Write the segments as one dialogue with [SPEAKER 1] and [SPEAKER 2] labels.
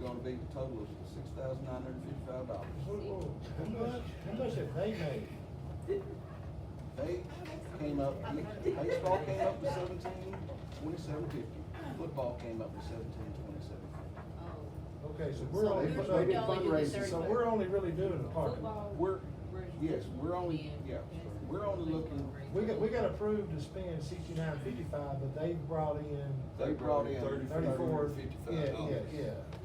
[SPEAKER 1] gonna be the total of six thousand nine hundred fifty-five
[SPEAKER 2] Whoa,
[SPEAKER 1] dollars.
[SPEAKER 2] whoa, How much, how much have they made?
[SPEAKER 1] They came up, baseball came up to seventeen, twenty-seven fifty, football came up to seventeen, twenty-seven fifty.
[SPEAKER 2] Okay, so
[SPEAKER 3] Oh. So
[SPEAKER 2] we're only,
[SPEAKER 3] there's
[SPEAKER 2] so-
[SPEAKER 3] no dollar to the
[SPEAKER 1] fundraising,
[SPEAKER 2] so
[SPEAKER 3] third
[SPEAKER 2] we're
[SPEAKER 3] one.
[SPEAKER 2] only really doing the parking lot.
[SPEAKER 3] Football.
[SPEAKER 1] We're,
[SPEAKER 3] We're-
[SPEAKER 1] yes, we're only, yeah, we're only looking,
[SPEAKER 2] We got, we got approved to spend sixty-nine fifty-five, but they brought in
[SPEAKER 1] they brought in
[SPEAKER 2] thirty-four.
[SPEAKER 1] thirty-four
[SPEAKER 2] Yeah,
[SPEAKER 1] fifty-five
[SPEAKER 2] yeah,
[SPEAKER 1] dollars.
[SPEAKER 2] yeah.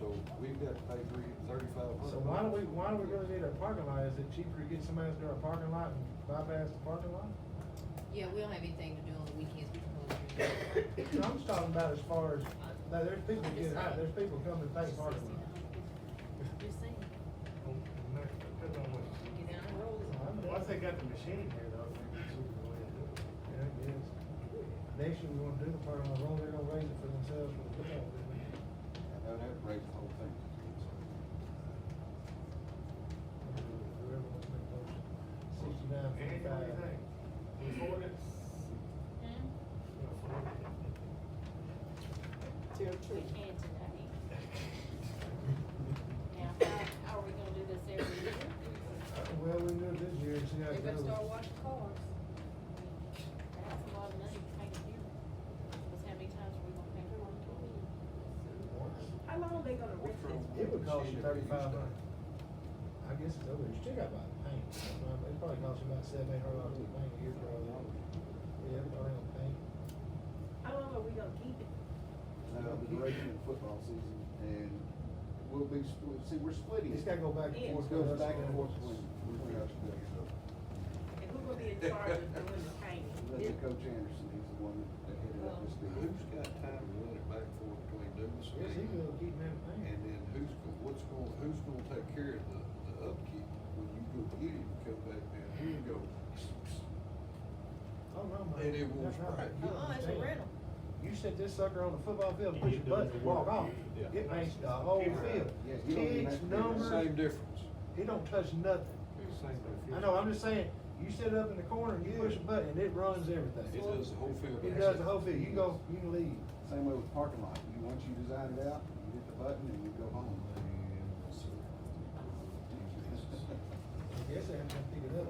[SPEAKER 1] So we've got to pay three, thirty-five hundred.
[SPEAKER 2] So why do we, why do we really need a parking lot? Is it cheaper to get somebody to do our parking lot and bypass the parking lot?
[SPEAKER 3] Yeah, we don't have anything to do on the weekends, we can go to.
[SPEAKER 2] No, I'm just talking about as far as, now, there's people getting out, there's people coming to take parking lot.
[SPEAKER 3] Just saying.
[SPEAKER 4] Depends on what-
[SPEAKER 3] Get down the road.
[SPEAKER 4] Once they got the machine here though, it's gonna be cheaper the way to do it.
[SPEAKER 2] Yeah, I guess. Next year, we're gonna do the parking lot, only they're gonna raise it for themselves for the football.
[SPEAKER 1] And that raised the whole thing.
[SPEAKER 2] Whoever wants to make those sixty-nine
[SPEAKER 4] Andy, what do you
[SPEAKER 2] fifty-five.
[SPEAKER 4] think? We afford it? We afford it.
[SPEAKER 5] We can today. Now, how are we gonna do this every year?
[SPEAKER 2] Uh, Well, we do it this year and see how
[SPEAKER 3] They
[SPEAKER 2] it
[SPEAKER 3] better
[SPEAKER 2] goes.
[SPEAKER 3] start washing cars.
[SPEAKER 5] That's a lot of money to pay a year. Because how many times are we gonna pay for
[SPEAKER 6] How long they gonna
[SPEAKER 1] We're
[SPEAKER 6] rent
[SPEAKER 1] from-
[SPEAKER 6] this?
[SPEAKER 2] It would cost you thirty-five hundred. I guess it's over, you still got about paint, it probably costs you about seven, eight hundred dollars to paint a year for all that. Yeah, probably on paint.
[SPEAKER 6] How long are we gonna keep it?
[SPEAKER 1] Now, uh, the regular football season, and we'll be, split- see, we're splitting.
[SPEAKER 2] It's gotta go back
[SPEAKER 6] Yeah.
[SPEAKER 2] and
[SPEAKER 1] It
[SPEAKER 2] forth.
[SPEAKER 1] goes back and forth between, we
[SPEAKER 6] And who gonna be in charge of doing
[SPEAKER 1] Let
[SPEAKER 6] the
[SPEAKER 1] the
[SPEAKER 6] painting?
[SPEAKER 1] coach Anderson, he's the one that headed up this deal.
[SPEAKER 7] Who's got time to run it back and forth between Dumas
[SPEAKER 2] Yes, he
[SPEAKER 7] and,
[SPEAKER 2] will keep them
[SPEAKER 7] and
[SPEAKER 2] in paint.
[SPEAKER 7] then who's gonna, what's gonna, who's gonna take care of the, the upkeep when you go get it and come back down here and go,
[SPEAKER 2] Oh, no, man.
[SPEAKER 7] And it will
[SPEAKER 2] That's not-
[SPEAKER 7] spread.
[SPEAKER 2] you
[SPEAKER 3] Uh-uh, it's a
[SPEAKER 2] understand.
[SPEAKER 3] rental.
[SPEAKER 2] You set this sucker on the football field,
[SPEAKER 4] You
[SPEAKER 2] push your
[SPEAKER 4] get to
[SPEAKER 2] button,
[SPEAKER 4] do the
[SPEAKER 2] walk
[SPEAKER 4] work.
[SPEAKER 2] off,
[SPEAKER 4] Yeah.
[SPEAKER 2] it makes the whole
[SPEAKER 4] Yeah.
[SPEAKER 2] field.
[SPEAKER 1] Yeah, you don't even have
[SPEAKER 2] Kids,
[SPEAKER 1] to do that.
[SPEAKER 2] numbers,
[SPEAKER 7] same difference.
[SPEAKER 2] it don't touch nothing.
[SPEAKER 7] Same difference.
[SPEAKER 2] I know, I'm just saying, you sit up in the corner and you push a button and it runs everything.
[SPEAKER 7] It does the whole field.
[SPEAKER 2] It does the whole field, you go, you can leave.
[SPEAKER 1] Same way with parking lot, you, once you design it out, you hit the button and you go home.
[SPEAKER 2] I guess I have to pick it up.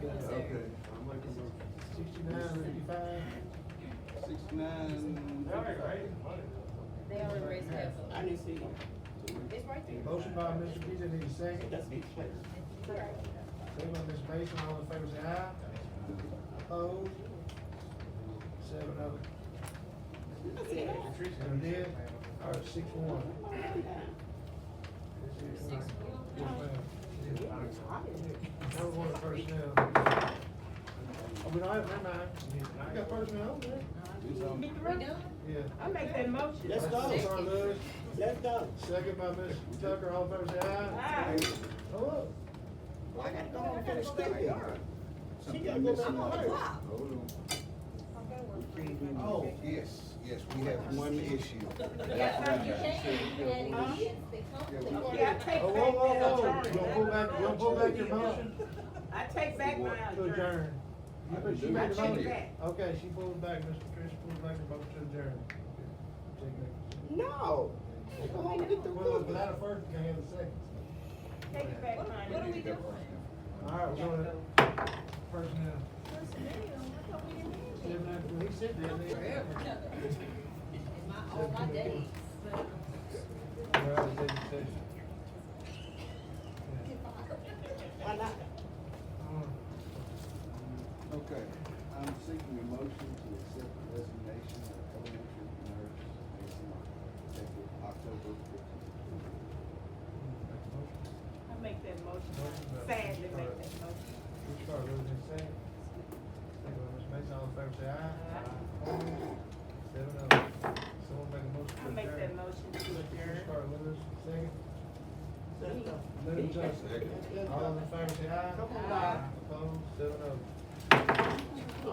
[SPEAKER 3] Yes, sir.
[SPEAKER 7] Okay, I'm making a motion.
[SPEAKER 2] Sixty-nine, fifty-five.
[SPEAKER 1] Sixty-nine.
[SPEAKER 4] They already raised the money though.
[SPEAKER 3] They already raised half of it.
[SPEAKER 8] I didn't see you.
[SPEAKER 3] It's right there.
[SPEAKER 2] Motion by Mr. Peter, need a second.
[SPEAKER 8] That's me.
[SPEAKER 2] Second by Ms. Mason, all in favor say aye. Opposed? Seven oh. of it.
[SPEAKER 4] Patricia-
[SPEAKER 2] And then, all right, six one.
[SPEAKER 3] Six.
[SPEAKER 2] Yes, ma'am. Now we're going to personnel. Oh, we don't have, never mind. I got personnel over there.
[SPEAKER 1] It's on-
[SPEAKER 6] Mr.
[SPEAKER 3] We
[SPEAKER 6] Russell,
[SPEAKER 3] done?
[SPEAKER 2] Yeah.
[SPEAKER 6] I make that motion.
[SPEAKER 8] Let's go.
[SPEAKER 2] That's our Lewis.
[SPEAKER 8] Let's go.
[SPEAKER 2] Second by Ms. Tucker, all in favor say aye.
[SPEAKER 6] Aye.
[SPEAKER 2] Hello.
[SPEAKER 8] Well, I gotta go home and finish cooking. She gotta go back to work.
[SPEAKER 1] Hold on.
[SPEAKER 2] Oh,
[SPEAKER 1] Yes, yes, we have one issue.
[SPEAKER 6] Yeah, I take back
[SPEAKER 2] Oh, whoa, whoa,
[SPEAKER 6] that
[SPEAKER 2] whoa,
[SPEAKER 6] adjourn.
[SPEAKER 2] you gonna pull back, you gonna pull back your motion
[SPEAKER 6] I take back my
[SPEAKER 2] to
[SPEAKER 6] adjourn.
[SPEAKER 2] adjourn? You put- she made the
[SPEAKER 6] I take
[SPEAKER 2] motion.
[SPEAKER 6] it back.
[SPEAKER 2] Okay, she pulled it back, Mr. Trish pulled back her motion to adjourn.
[SPEAKER 8] No. Go home and get the
[SPEAKER 2] Well,
[SPEAKER 8] cooking.
[SPEAKER 2] without a first, you can't have a second.
[SPEAKER 6] Take it back mine.
[SPEAKER 3] What are we doing?
[SPEAKER 2] All right, we're going to personnel. Seven after, he said that. they-
[SPEAKER 3] In my, all my days.
[SPEAKER 2] We're out of executive session.
[SPEAKER 8] Why not?
[SPEAKER 2] Uh,
[SPEAKER 1] Um, Okay, I'm seeking a motion to accept the resignation of elementary nurse Mason Lockwood, effective October fifteenth.
[SPEAKER 2] make a motion.
[SPEAKER 6] I make that motion. Sadly make that motion.
[SPEAKER 2] Which part, Rose and second? Second by Ms. Mason, all in favor, say aye. Seven of them. Someone make a motion. to
[SPEAKER 6] I make
[SPEAKER 2] adjourn.
[SPEAKER 6] that motion to
[SPEAKER 2] Which
[SPEAKER 6] adjourn.
[SPEAKER 2] part, Lewis, second?
[SPEAKER 8] Let's go.
[SPEAKER 2] Little Johnson.
[SPEAKER 8] Let's
[SPEAKER 2] All
[SPEAKER 8] go.
[SPEAKER 2] in favor, say aye.
[SPEAKER 8] Come on,
[SPEAKER 2] oh. Opposed, seven of them.